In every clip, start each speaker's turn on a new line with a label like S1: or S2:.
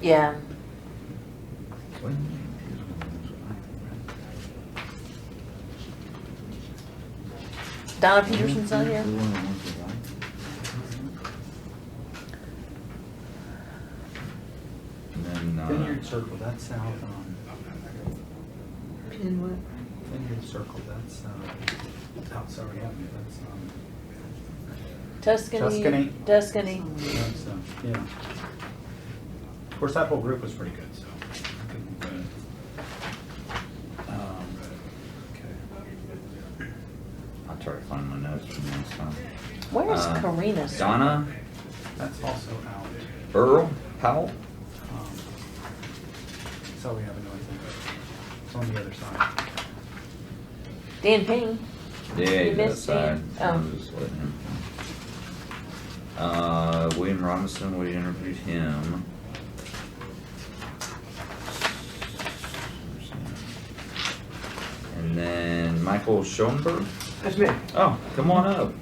S1: Yeah, Donna Peterson's not here.
S2: And then, uh,
S3: Vineyard Circle, um, that's out on,
S4: In what?
S3: Vineyard Circle, that's, uh, out Surrey Avenue, that's, um,
S1: Tuscany.
S3: Tuscany.
S1: Tuscany.
S3: that's, uh, yeah. Of course, that whole group was pretty good, so. I couldn't complain. Um,
S2: I'll try to find my notes from last time.
S1: Where is
S2: Uh,
S1: Karina?
S2: Donna,
S3: That's also out,
S2: Earl, Powell,
S3: um, Surrey Avenue, I think, it's on the other side.
S1: Dan Ping.
S2: yeah,
S1: You
S2: he's
S1: missed
S2: outside.
S1: him.
S2: I'm
S1: Oh.
S2: just letting him. Uh, William Robinson, we interviewed him. And then Michael Schoenberg.
S5: That's me.
S2: Oh, come on up.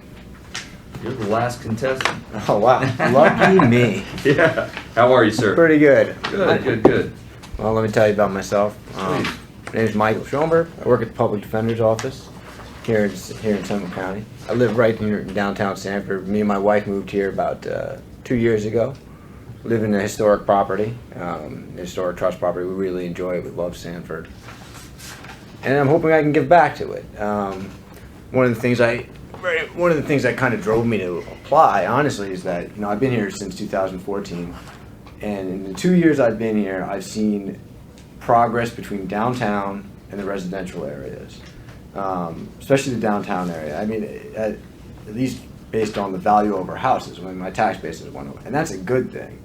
S2: You're the last contestant.
S5: Oh, wow. Lucky me.
S2: Yeah. How are you, sir?
S5: Pretty good.
S2: Good, good, good.
S5: Well, let me tell you about myself. Um,
S2: Please.
S5: my name is Michael Schoenberg. I work at the Public Defender's Office here in, here in Trumbull County. I live right near downtown Sanford. Me and my wife moved here about uh, two years ago. Live in a historic property, um, historic trust property. We really enjoy it. We love Sanford. and I'm hoping I can give back to it. Um, one of the things I, very- one of the things that kind of drove me to apply, honestly, is that you know I've been here since 2014, and in the two years I've been here, I've seen progress between downtown and the residential areas, um, especially the downtown area. I mean, uh, at, at least based on the value of our houses, when my tax basis went up, oh, and that's a good thing.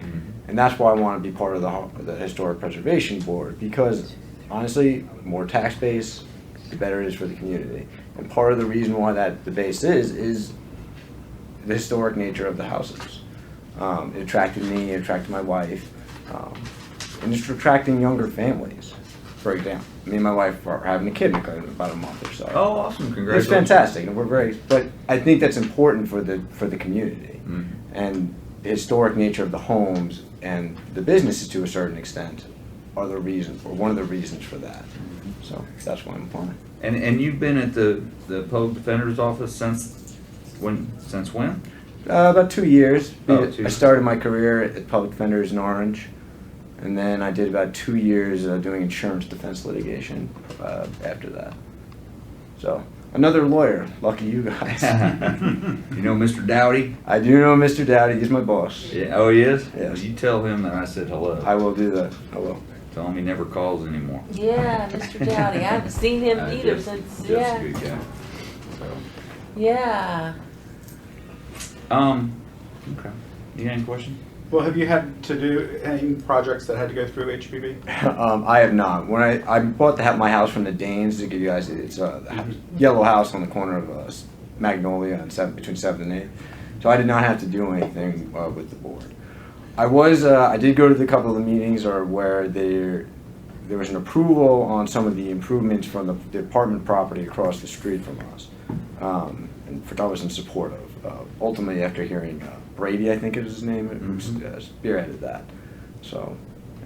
S5: And that's why I want to be part of the, ho- the Historic Preservation Board, because honestly, more tax base, the better it is for the community. And part of the reason why that, the base is, is the historic nature of the houses. Um, it attracted me, it attracted my wife, um, and it's attracting younger families. For example, me and my wife are having a kid in about a month or so.
S2: Oh, awesome.
S5: It's
S2: Congratulations.
S5: fantastic, and we're very, but I think that's important for the, for the community
S2: Mhm.
S5: and the historic nature of the homes and the businesses to a certain extent are the reason for one of the reasons for that. So that's why I'm applying.
S2: And, and you've been at the, the public defender's office since when? Since when?
S5: Uh, about two years.
S2: Oh, two
S5: I
S2: years.
S5: started my career at Public Defenders in Orange, and then I did about two years uh, doing insurance defense litigation uh, after that. So another lawyer. Lucky you guys.
S2: you know Mr. Dowdy?
S5: I do know Mr. Dowdy. He's my boss.
S2: Yeah, oh, he is?
S5: Yes.
S2: Well, You tell him that I said hello.
S5: I will do that. I will.
S2: Tell him he never calls anymore.
S1: Yeah, Mr. Dowdy. I haven't seen him
S2: Uh,
S1: either
S2: just-
S1: since,
S2: just a
S1: yeah,
S2: good guy. So,
S1: yeah.
S2: Um, okay. You got any question?
S3: Well, have you had to do any projects that had to go through HPB?
S5: Um, I have not. When I, I bought the, ha- my house from the Danes to give you guys, it's a yellow house on the corner of uh, S- Magnolia and seven, between seventh and eighth. So I did not have to do anything uh, with the board. I was, uh, I did go to the couple of the meetings or where there, there was an approval on some of the improvements from the, the apartment property across the street from us. Um, and for, I was in support of, uh, ultimately after hearing uh, Brady, I think is his name, who
S2: Mhm.
S5: uh, spearheaded that. So,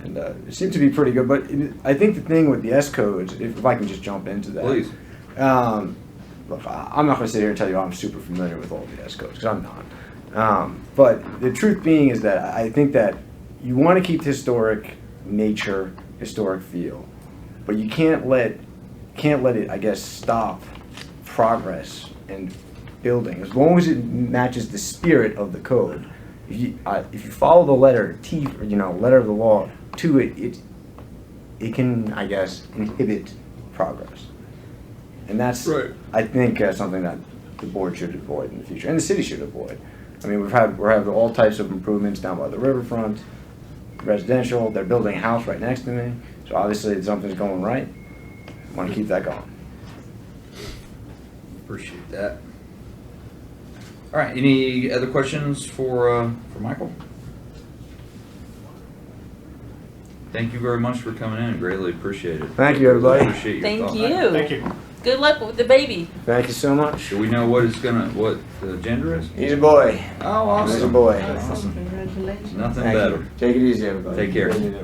S5: and uh, it seemed to be pretty good, but it- I think the thing with the S codes, if, if I can just jump into that.
S2: Please.
S5: Um, look, I- I'm not going to sit here and tell you I'm super familiar with all the S codes because I'm not. Um, but the truth being is that I think that you want to keep the historic nature, historic feel, but you can't let can't let it, I guess, stop progress and building as long as it matches the spirit of the code. If you, uh, if you follow the letter T, you know, letter of the law to it, it it can, I guess, inhibit progress. And that's,
S2: Right.
S5: I think, uh, something that the board should avoid in the future, and the city should avoid. I mean, we've had, we're having all types of improvements down by the riverfront, residential, they're building a house right next to me, so obviously something's going right. Want to keep that going.
S2: Appreciate that. All right. Any other questions for uh, for Michael? Thank you very much for coming in. Greatly appreciate it.
S5: Thank you, everybody.
S2: Appreciate your
S1: Thank
S2: thought.
S1: you.
S3: Thank you.
S1: Good luck with the baby.
S5: Thank you so much.
S2: Do we know what it's gonna what the gender is?
S5: He's a boy.
S2: Oh, awesome.
S5: He's a boy.
S2: Awesome.
S4: Congratulations.
S2: Nothing
S5: Thank you.
S2: better.
S5: Take it easy, everybody.
S2: Take care.